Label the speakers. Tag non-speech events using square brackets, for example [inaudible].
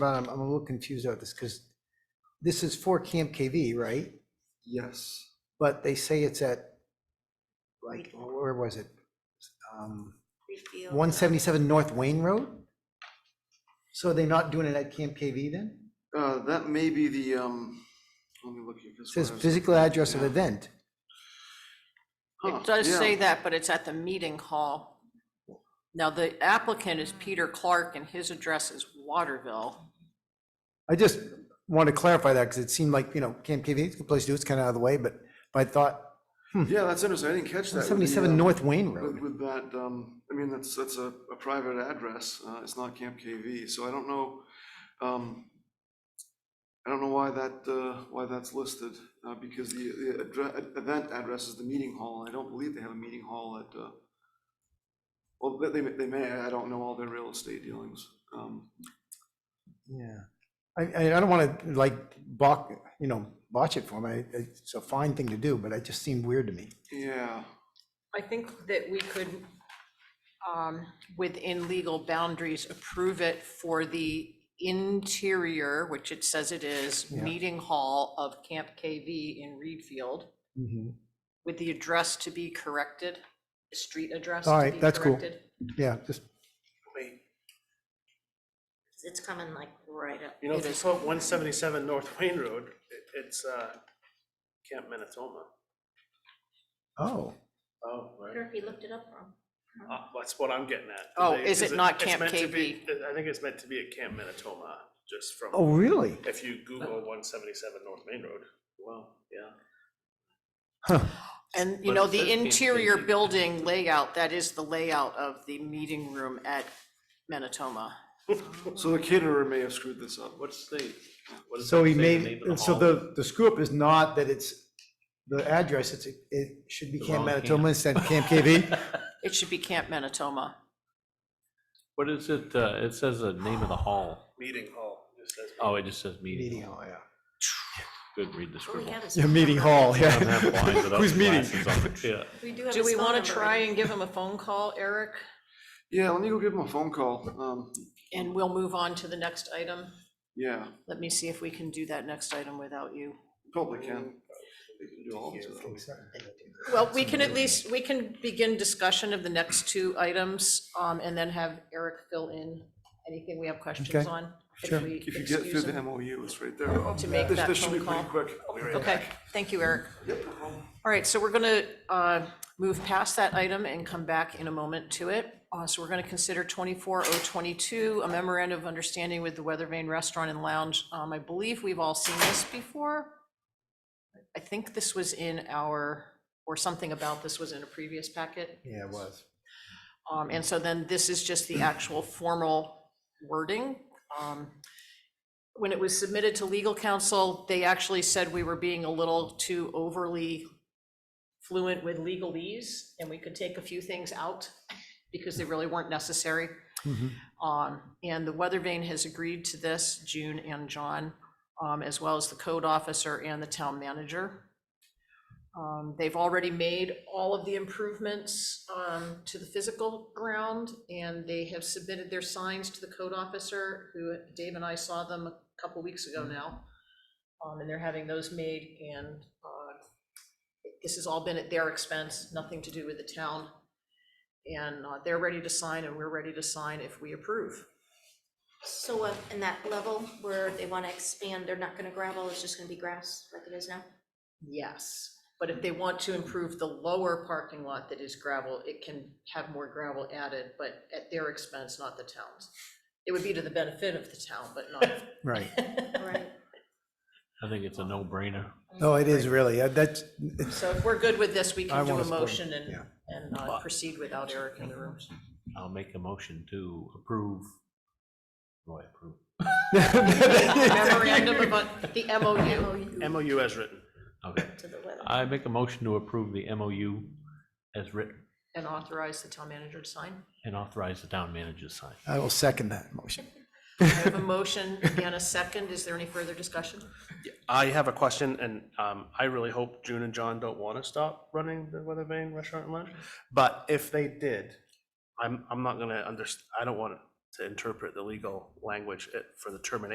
Speaker 1: Ron, I'm, I'm a little confused about this, because this is for Camp KV, right?
Speaker 2: Yes.
Speaker 1: But they say it's at, like, where was it? Um,
Speaker 3: Refield.
Speaker 1: 177 North Wayne Road? So are they not doing it at Camp KV then?
Speaker 2: Uh, that may be the, um, let me look here. 'cause
Speaker 1: It Says
Speaker 2: what I was-
Speaker 1: physical address of
Speaker 2: Yeah.
Speaker 1: event.
Speaker 2: Huh,
Speaker 4: It does
Speaker 2: yeah.
Speaker 4: say that, but it's at the meeting hall. Now, the applicant is Peter Clark and his address is Waterville.
Speaker 1: I just want to clarify that, because it seemed like, you know, Camp KV is a good place to do, it, it's kind of out of the way, but but I thought
Speaker 2: Yeah, that's interesting. I didn't catch that. with the,
Speaker 1: 177
Speaker 2: uh,
Speaker 1: Hmm. North Wayne
Speaker 2: With,
Speaker 1: Road.
Speaker 2: with that, um, I mean, that's, that's a, a private address, uh, it's not Camp KV, so I don't know, um, I don't know why that, uh, why that's listed, uh, because the, the addre- event address is the meeting hall, and I don't believe they have a meeting hall at, uh, well, they, they may- they may, I don't know all their real estate dealings, um,
Speaker 1: Yeah. I, I I don't want to like balk, you know, botch it for me. It's a fine thing to do, but it just seemed weird to me.
Speaker 2: yeah,
Speaker 4: I think that we could, um, within legal boundaries, approve it for the interior, which it says it is,
Speaker 1: Yeah.
Speaker 4: meeting hall of Camp KV in Reedfield,
Speaker 1: Mm-hmm.
Speaker 4: with the address to be corrected, the street address.
Speaker 1: All
Speaker 4: to
Speaker 1: right,
Speaker 4: be
Speaker 1: that's cool.
Speaker 4: corrected.
Speaker 1: Yeah, just,
Speaker 3: It's coming like right up.
Speaker 5: You know,
Speaker 4: It
Speaker 5: if you
Speaker 4: is.
Speaker 5: put one seventy-seven North Wayne Road, it- it's, uh, Camp Minnesota.
Speaker 1: oh,
Speaker 5: Oh,
Speaker 3: I wonder if he looked it up wrong.
Speaker 5: Uh, That's what I'm getting at.
Speaker 4: Oh,
Speaker 5: They-
Speaker 4: is it not
Speaker 5: it's
Speaker 4: Camp
Speaker 5: meant to be-
Speaker 4: KV?
Speaker 5: I think it's meant to be at Camp Minnesota, just from.
Speaker 1: oh, really?
Speaker 5: If you Google one seventy-seven North Main Road, well, yeah.
Speaker 4: And, you
Speaker 5: But
Speaker 4: know,
Speaker 5: it says
Speaker 4: the
Speaker 5: Camp
Speaker 4: interior
Speaker 5: KV.
Speaker 4: building layout, that is the layout of the meeting room at Manatoma.
Speaker 2: so the caterer may have screwed this up.
Speaker 5: What's the? what does
Speaker 1: So
Speaker 5: that
Speaker 1: he
Speaker 5: say, the
Speaker 1: made,
Speaker 5: name of the
Speaker 1: so
Speaker 5: hall?
Speaker 1: the, the screw up is not that it's the address, it's, it should be
Speaker 6: The
Speaker 1: Camp
Speaker 6: wrong
Speaker 1: Manitoba instead of Camp KV.
Speaker 4: It should be Camp Manatoma.
Speaker 6: What is it? Uh, it says the name of the hall.
Speaker 5: Meeting hall, it says.
Speaker 6: Oh, it just says meeting.
Speaker 1: Meeting hall, yeah. [laughs]
Speaker 6: Good, read the
Speaker 3: All we
Speaker 6: scribble.
Speaker 3: have is
Speaker 1: Yeah,
Speaker 3: phone
Speaker 1: meeting
Speaker 3: number.
Speaker 1: hall,
Speaker 6: I
Speaker 1: [laughs]
Speaker 6: don't have blinds
Speaker 1: yeah.
Speaker 6: without
Speaker 1: Who's
Speaker 6: the
Speaker 1: meeting?
Speaker 6: glasses on.
Speaker 1: [laughs]
Speaker 6: Yeah.
Speaker 3: We do have
Speaker 4: Do
Speaker 3: his
Speaker 4: we
Speaker 3: phone
Speaker 4: want
Speaker 3: number
Speaker 4: to try
Speaker 3: right
Speaker 4: and give him a phone call, Eric?
Speaker 2: Yeah, let me go give him a phone call, um,
Speaker 4: And we'll move on to the next item.
Speaker 2: yeah,
Speaker 4: Let me see if we can do that next item without you.
Speaker 2: probably can. They can do all of it.
Speaker 4: Well, we can at least, we can begin discussion of the next two items, um, and then have Eric fill in anything we have questions
Speaker 1: Okay,
Speaker 4: on.
Speaker 1: sure.
Speaker 4: If we
Speaker 2: If you get through
Speaker 4: excuse
Speaker 2: the
Speaker 4: him.
Speaker 2: MOU, it's right there.
Speaker 4: To make
Speaker 2: This-
Speaker 4: that
Speaker 2: This should
Speaker 4: phone
Speaker 2: be pretty
Speaker 4: call.
Speaker 2: quick. I'll be right back.
Speaker 4: Okay, thank you, Eric. All right, so we're gonna, uh, move past that item and come back in a moment to it. Uh, so we're gonna consider twenty-four oh twenty-two, a memorandum of understanding with the Weather Vane Restaurant and Lounge. Um, I believe we've all seen this before. I think this was in our, or something about this was in a previous packet.
Speaker 1: [laughs] Yeah, it was.
Speaker 4: Um, and so then this is just the actual formal wording. Um, When it was submitted to legal counsel, they actually said we were being a little too overly fluent with legalese, and we could take a few things out because they really weren't necessary.
Speaker 1: Mhm.
Speaker 4: Um, and the weather vane has agreed to this, June and John, um, as well as the code officer and the town manager. Um, they've already made all of the improvements, um, to the physical ground, and they have submitted their signs to the code officer, who Dave and I saw them a couple weeks ago now. Um, and they're having those made, and, uh, this has all been at their expense, nothing to do with the town. And uh, they're ready to sign and we're ready to sign if we approve.
Speaker 3: So uh, in that level where they want to expand, they're not going to gravel, it's just going to be grass like it is now?
Speaker 4: Yes, but if they want to improve the lower parking lot that is gravel, it can have more gravel added, but at their expense, not the town's. It would be to the benefit of the town, but not,
Speaker 1: [laughs] Right.
Speaker 3: Right.
Speaker 6: I think it's a no-brainer.
Speaker 1: No, it is really, uh, that's, [laughs] it's-
Speaker 4: so if we're good with this, we
Speaker 1: I
Speaker 4: can do
Speaker 1: wanna
Speaker 4: a
Speaker 1: support it,
Speaker 4: motion and,
Speaker 1: yeah.
Speaker 4: and uh, proceed without Eric in the room.
Speaker 6: I'll make a motion to approve. Oh, I approve.
Speaker 4: Memorandum about the MOU.
Speaker 5: MOU as written.
Speaker 6: Okay.
Speaker 3: To the weather.
Speaker 6: I make a motion to approve the MOU as written
Speaker 4: And authorize the town manager to sign.
Speaker 6: and authorize the town manager to sign.
Speaker 1: I will second that motion.
Speaker 4: I have a motion and a second. Is there any further discussion?
Speaker 5: I have a question, and um, I really hope June and John don't want to stop running the Weather Vane Restaurant and Lounge. But if they did, I'm, I'm not gonna underst, I don't want to interpret the legal language eh, for the termination